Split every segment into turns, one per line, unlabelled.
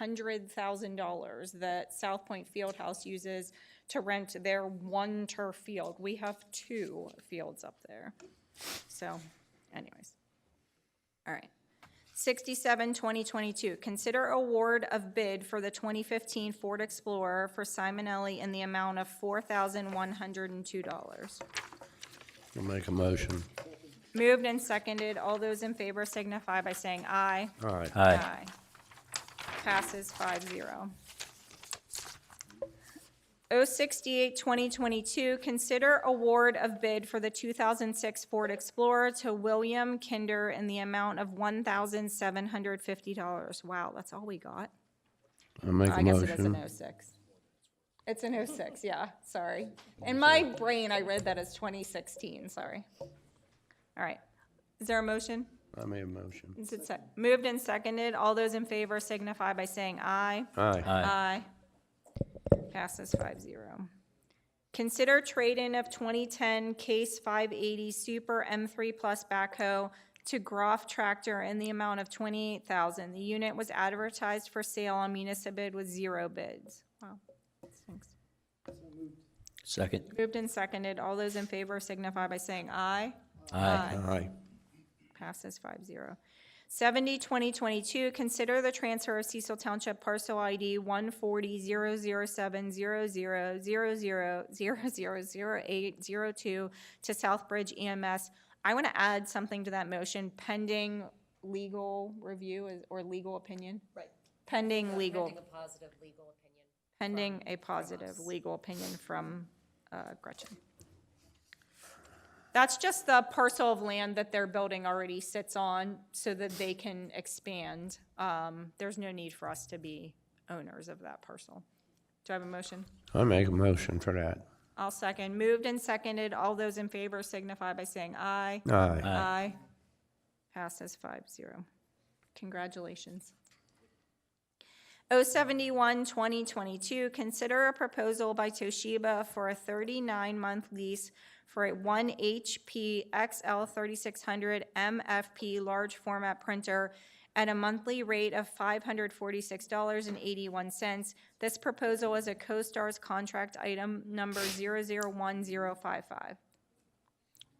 hundred thousand dollars that South Point Fieldhouse uses to rent their one turf field. We have two fields up there. So anyways. All right. 67, 2022, consider award of bid for the 2015 Ford Explorer for Simonelli in the amount of $4,102.
I'll make a motion.
Moved and seconded. All those in favor signify by saying aye.
All right.
Aye.
Passes five zero. O sixty-eight, twenty twenty-two, consider award of bid for the two thousand six Ford Explorer to William Kinder in the amount of one thousand seven hundred fifty dollars. Wow, that's all we got.
I'll make
I
a
guess it is an
motion.
O six. It's an O six, yeah, sorry. In my brain, I read that as twenty sixteen, sorry. All right. Is there a motion?
I made a motion.
Is it sec- Moved and seconded. All those in favor signify by saying aye.
Aye.
Uh,
Aye.
Passes five zero. Consider trade-in of 2010 Case 580 Super M3 Plus backhoe to Groff Tractor in the amount of 28000 The unit was advertised for sale on Municipal with zero bids. Wow. Thanks.
Second.
Moved and seconded. All those in favor signify by saying aye.
Aye.
Aye.
Passes five zero. Seventy, twenty twenty-two, consider the transfer of Cecil Township parcel ID one forty zero zero seven zero zero zero zero zero zero zero eight zero two to Southbridge EMS. I want to add something to that motion pending legal review is- or legal opinion,
Right.
pending legal,
Pending a positive legal opinion.
pending a positive legal opinion from uh, Gretchen. That's just the parcel of land that their building already sits on so that they can expand. Um, There's no need for us to be owners of that parcel. Do I have a motion?
I make a motion for that.
I'll second. Moved and seconded. All those in favor signify by saying aye.
Aye.
Aye. Passes five zero. Congratulations. O seventy-one, twenty twenty-two, consider a proposal by Toshiba for a thirty-nine month lease for a one HP XL thirty-six hundred MFP large format printer at a monthly rate of five hundred forty-six dollars and eighty-one cents. This proposal is a CoStar's contract item number zero zero one zero five five.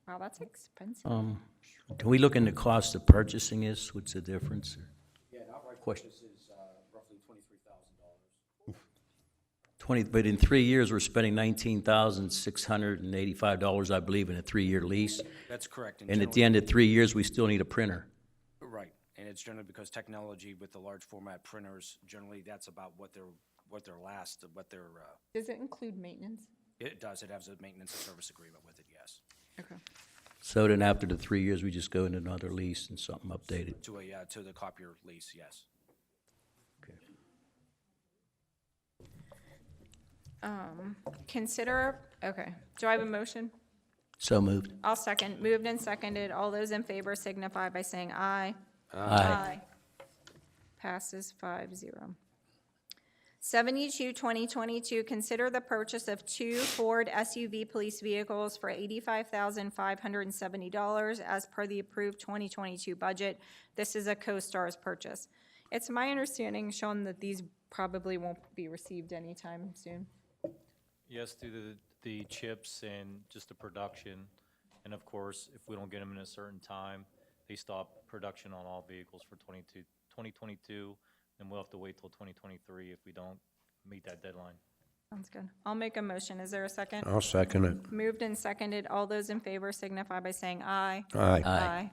Wow, that's expensive.
Can we look into cost of purchasing this? What's the difference? Question. Twenty, but in three years, we're spending nineteen thousand six hundred and eighty-five dollars, I believe, in a three-year lease.
That's correct.
And at the end of three years, we still need a printer.
Right, and it's generally because technology with the large format printers, generally that's about what their, what their last, what their, uh,
Does it include maintenance?
it does, it has a maintenance and service agreement with it, yes.
Okay.
So then after the three years, we just go into another lease and something updated.
To a, uh, to the copier lease, yes.
Consider, okay, do I have a motion?
So moved.
I'll second, moved and seconded, all those in favor signify by saying aye.
Aye.
Passes five zero. Seventy-two, twenty twenty-two, consider the purchase of two Ford SUV police vehicles for eighty-five thousand five hundred and seventy dollars as per the approved twenty twenty-two budget. This is a CoStar's purchase. It's my understanding, Sean, that these probably won't be received anytime soon.
Yes, through the, the chips and just the production. And of course, if we don't get them in a certain time, they stop production on all vehicles for 22, 2022, and we'll have to wait till 2023 if we don't meet that deadline.
Sounds good. I'll make a motion. Is there a second?
I'll second it.
Moved and seconded. All those in favor signify by saying aye.
Aye.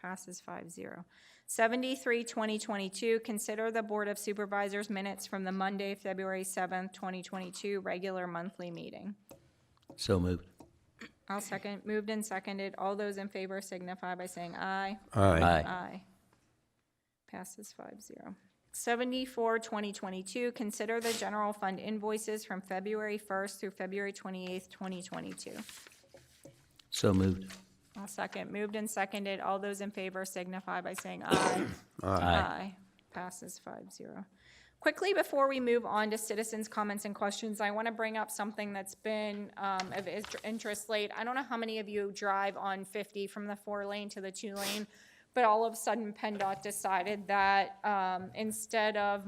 Passes five zero. Seventy-three, twenty twenty-two, consider the Board of Supervisors minutes from the Monday, February seventh, twenty twenty-two, regular monthly meeting.
So moved.
I'll second. Moved and seconded. All those in favor signify by saying aye.
Aye.
Aye.
Aye. Passes five zero. Seventy-four, twenty twenty-two, consider the general fund invoices from February first through February twenty-eighth, twenty twenty-two.
So moved.
I'll second. Moved and seconded. All those in favor signify by saying aye. Passes five zero. Quickly, before we move on to citizens' comments and questions, I want to bring up something that's been um, of is- interest late. I don't know how many of you drive on 50 from the four lane to the two lane, but all of a sudden PennDOT decided that um, instead of